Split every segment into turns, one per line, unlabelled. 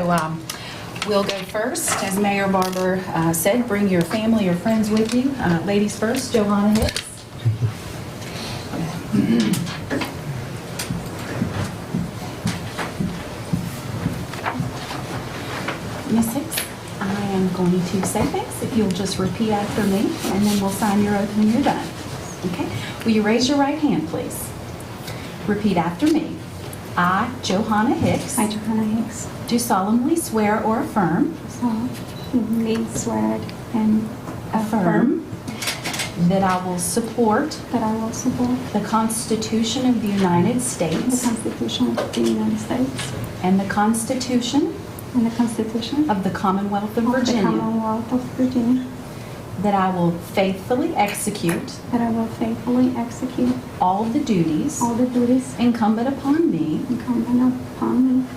So um, we'll go first. As Mayor Barber uh, said, bring your family or friends with you. Uh, Ladies first, Joanna Hicks. Miss Hicks, I am going to say thanks if you'll just repeat after me, and then we'll sign your oath when you're done. Okay? Will you raise your right hand, please? Repeat after me. I, Johanna Hicks,
I, Johanna Hicks,
do solemnly swear or affirm
solemnly swear and
affirm
affirm
that I will support
that I will support
the Constitution of the United
the
States
Constitution of the United States
and the Constitution
and the Constitution
of the Commonwealth of
of the
Virginia,
Commonwealth of Virginia,
that I will faithfully execute
that I will faithfully execute
all the duties
all the duties
incumbent upon me
incumbent upon me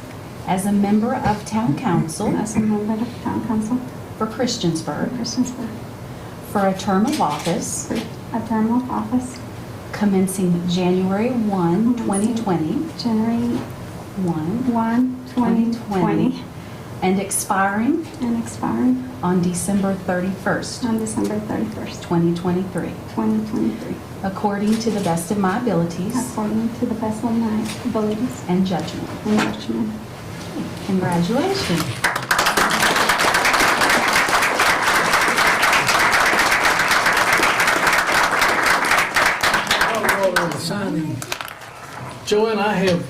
as a member of Town Council
as a member of Town Council of
for Christiansburg
Christiansburg
for a term of office
for a term of office
commencing January 1, 2020,
January
1,
1, 2020,
2020, and expiring
and expiring
on December 31st,
on December 31st,
2023,
2023.
according to the best of my abilities
According to the best of my abilities
and judgment.
and judgment.
Congratulations.
Joanne, I have,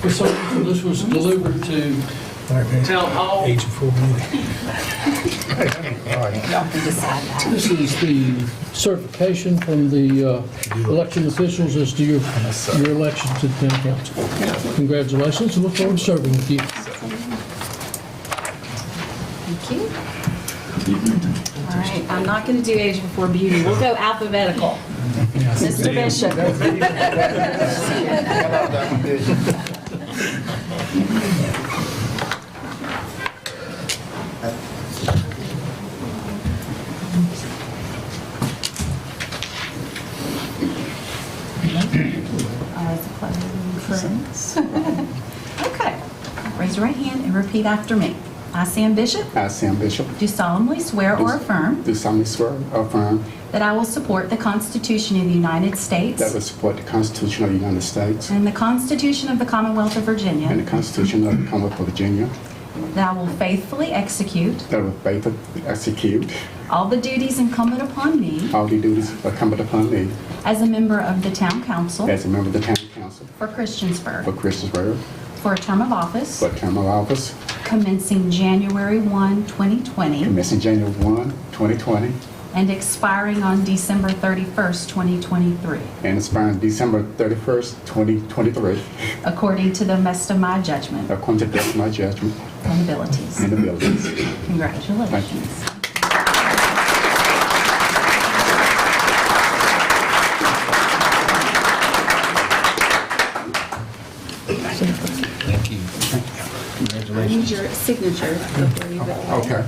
for some reason, this was delivered to
All right, man.
Town Hall.
Age of four minutes.
Y'all can decide that.
This is the certification from the uh, election officials as to your, your election to the town council. Congratulations, and look forward to serving with you.
Thank you. All right, I'm not going to do age before beauty. We'll go alphabetical. Mr. Bishop. Eyes closed. Friends. Okay. Raise your right hand and repeat after me. I, Sam Bishop,
I, Sam Bishop,
do solemnly swear or affirm
do solemnly swear or affirm
that I will support the Constitution of the United States
that I will support the Constitution of the United States
and the Constitution of the Commonwealth of
and
Virginia,
the Constitution of the Commonwealth of Virginia,
that I will faithfully execute
that I will faithfully execute
all the duties incumbent upon me
all the duties incumbent upon me
as a member of the Town Council
as a member of the Town Council
for
for
Christiansburg
Christiansburg
for a term of office
for a term of office
commencing January 1, 2020,
commencing January 1, 2020,
and expiring on December 31st, 2023,
and expiring December 31st, 2023,
according to the best of my judgment
according to the best of my judgment
and abilities.
and abilities.
Congratulations.
Thank you.
I
Congratulations.
need your signature before you go.
Okay.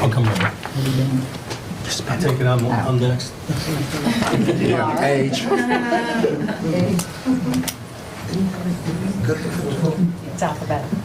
I'll come over. I take it I'm, I'm next.
Age.
It's alphabetical.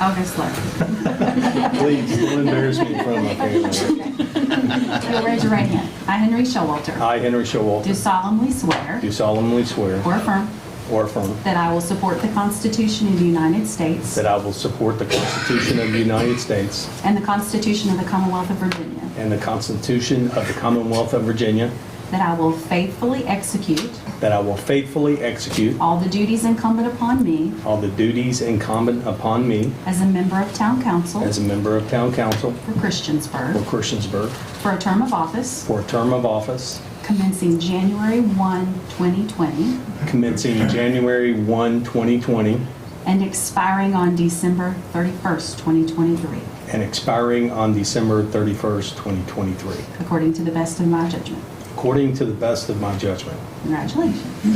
August 11th.
Please, don't embarrass me in front of my family.
You'll raise your right hand. I, Henry Showalter,
I, Henry
do
Showalter,
solemnly swear
do solemnly swear
or affirm
or affirm
that I will support the Constitution of the United States
that I will support the Constitution of the United States
and the Constitution of the Commonwealth of Virginia,
and the Constitution of the Commonwealth of Virginia,
that I will faithfully execute
that I will faithfully execute
all the duties incumbent upon me
all the duties incumbent upon me
as a member of Town Council
as a member of Town Council
for
for
Christiansburg
Christiansburg
for a term of office
for a term of office
commencing January 1, 2020,
commencing January 1, 2020,
and expiring on December 31st, 2023,
and expiring on December 31st, 2023,
according to the best of my judgment.
according to the best of my judgment.
Congratulations.